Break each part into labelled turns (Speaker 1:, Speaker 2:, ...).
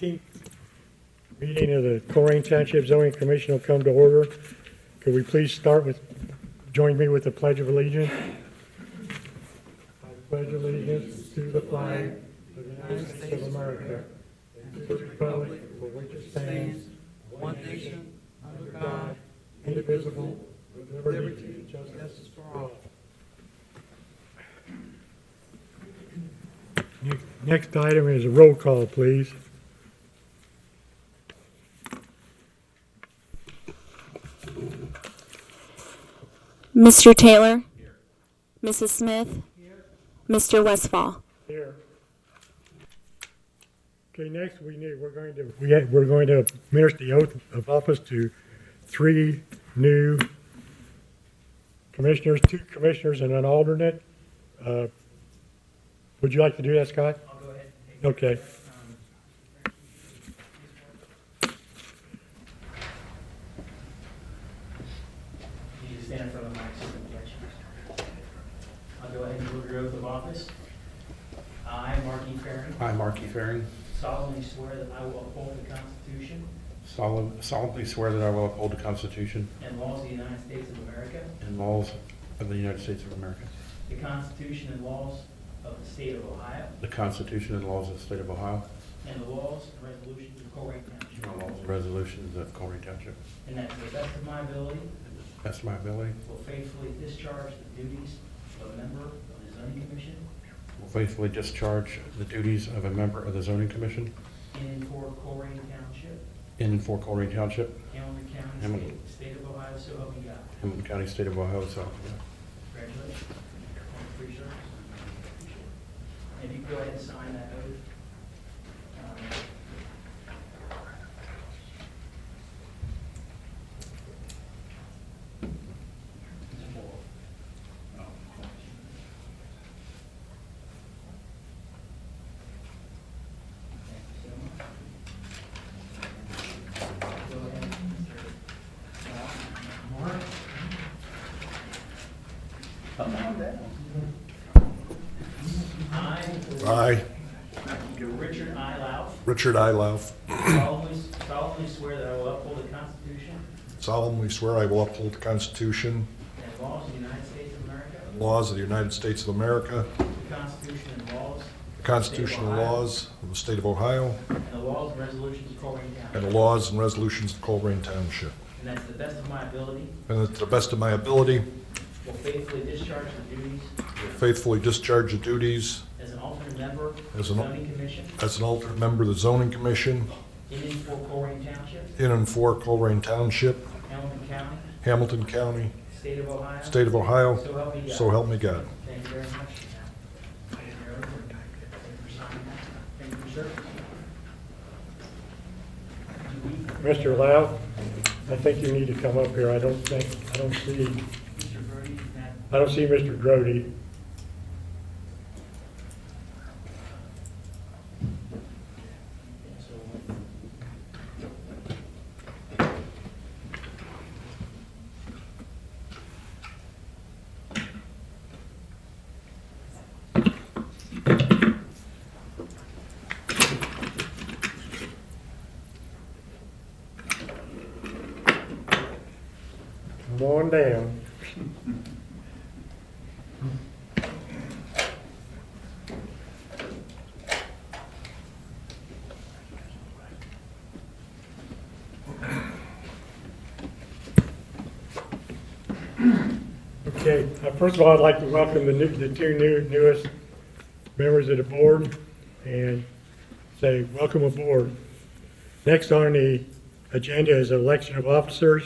Speaker 1: 15th meeting of the Corrine Township Zoning Commission will come to order. Could we please start with, join me with the Pledge of Allegiance? I pledge allegiance to the flag of the United States of America and to the republic for which it stands, one nation, under God, indivisible, with liberty and justice for all. Next item is a roll call, please.
Speaker 2: Mr. Taylor? Mrs. Smith? Mr. Westfall?
Speaker 1: Here. Okay, next we need, we're going to, we, we're going to administer the oath of office to three new commissioners, two commissioners and an alternate. Uh, Would you like to do that, Scott?
Speaker 3: I'll go ahead and take.
Speaker 1: Okay.
Speaker 3: um, You just stand in front of the mic, so we can catch you. I'll go ahead and deliver your oath of office. I, Mark E. Farren,
Speaker 4: I, Mark E. Farren,
Speaker 3: solemnly swear that I will uphold the Constitution
Speaker 4: solemn- solemnly swear that I will uphold the Constitution
Speaker 3: and laws of the United States of America,
Speaker 4: and laws of the United States of America,
Speaker 3: the Constitution and laws of the state of Ohio,
Speaker 4: the Constitution and laws of the State of Ohio,
Speaker 3: and the laws and resolutions of Corrigan
Speaker 4: and
Speaker 3: Township,
Speaker 4: the laws and resolutions of Corning Township.
Speaker 3: and that to the best of my ability,
Speaker 4: That's my ability.
Speaker 3: Will faithfully discharge the duties of a member of the zoning commission
Speaker 4: Will faithfully discharge the duties of a member of the Zoning Commission
Speaker 3: in and for Corrine Township,
Speaker 4: in and for Corning Township,
Speaker 3: Hamilton County,
Speaker 4: Hamilton.
Speaker 3: State- State of Ohio, so help me God.
Speaker 4: Hamilton County, State of Ohio, South Carolina.
Speaker 3: Congratulations. Free service. If you could go ahead and sign that oath. Um, I,
Speaker 5: I,
Speaker 3: Richard I. Lau,
Speaker 5: Richard I. Lauf,
Speaker 3: solemnly solemnly swear that I will uphold the Constitution
Speaker 5: solemnly swear I will uphold the Constitution
Speaker 3: and laws of the United States of America,
Speaker 5: and laws of the United States of America,
Speaker 3: the Constitution and laws,
Speaker 5: the constitutional laws of the state of Ohio,
Speaker 3: and the laws and resolutions of Corrigan
Speaker 5: and
Speaker 3: County,
Speaker 5: the laws and resolutions of Colerain Township.
Speaker 3: and that to the best of my ability,
Speaker 5: And that to the best of my ability,
Speaker 3: will faithfully discharge the duties
Speaker 5: faithfully discharge the duties
Speaker 3: as an alternate member of the
Speaker 5: As an al-
Speaker 3: zoning commission
Speaker 5: as an alternate member of the zoning commission
Speaker 3: in and for Corrigan Township,
Speaker 5: in and for Colerain Township,
Speaker 3: Hamilton County,
Speaker 5: Hamilton County,
Speaker 3: state of Ohio.
Speaker 5: state of Ohio,
Speaker 3: So help me God.
Speaker 5: so help me God.
Speaker 3: Thank you very much. Thank you very much. Thank you for signing that. Thank you, sir.
Speaker 1: Mr. Lau, I think you need to come up here. I don't think, I don't see,
Speaker 3: Mr. Brody, is that
Speaker 1: I don't see Mr. Grody. Come on down. Okay, uh, first of all, I'd like to welcome the new, the two new, newest members of the board and say, welcome aboard. Next on the agenda is election of officers.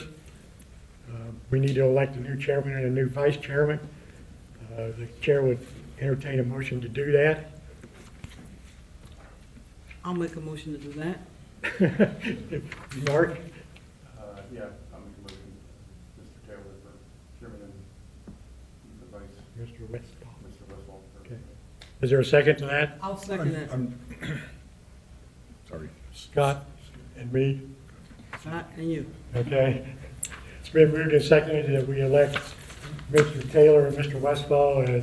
Speaker 1: Uh, We need to elect a new chairman and a new vice chairman. Uh, The chair would entertain a motion to do that.
Speaker 6: I'll make a motion to do that.
Speaker 1: Mark,
Speaker 7: Uh, Yeah, I'm moving Mr. Taylor for chairman and the vice,
Speaker 1: Mr. Westphal.
Speaker 7: Mr. Westphal for
Speaker 1: Okay. Is there a second to that?
Speaker 6: I'll second that.
Speaker 5: Sorry.
Speaker 1: Scott and me?
Speaker 6: Scott and you.
Speaker 1: Okay. It's been moved and seconded that we elect Mr. Taylor and Mr. Westfall as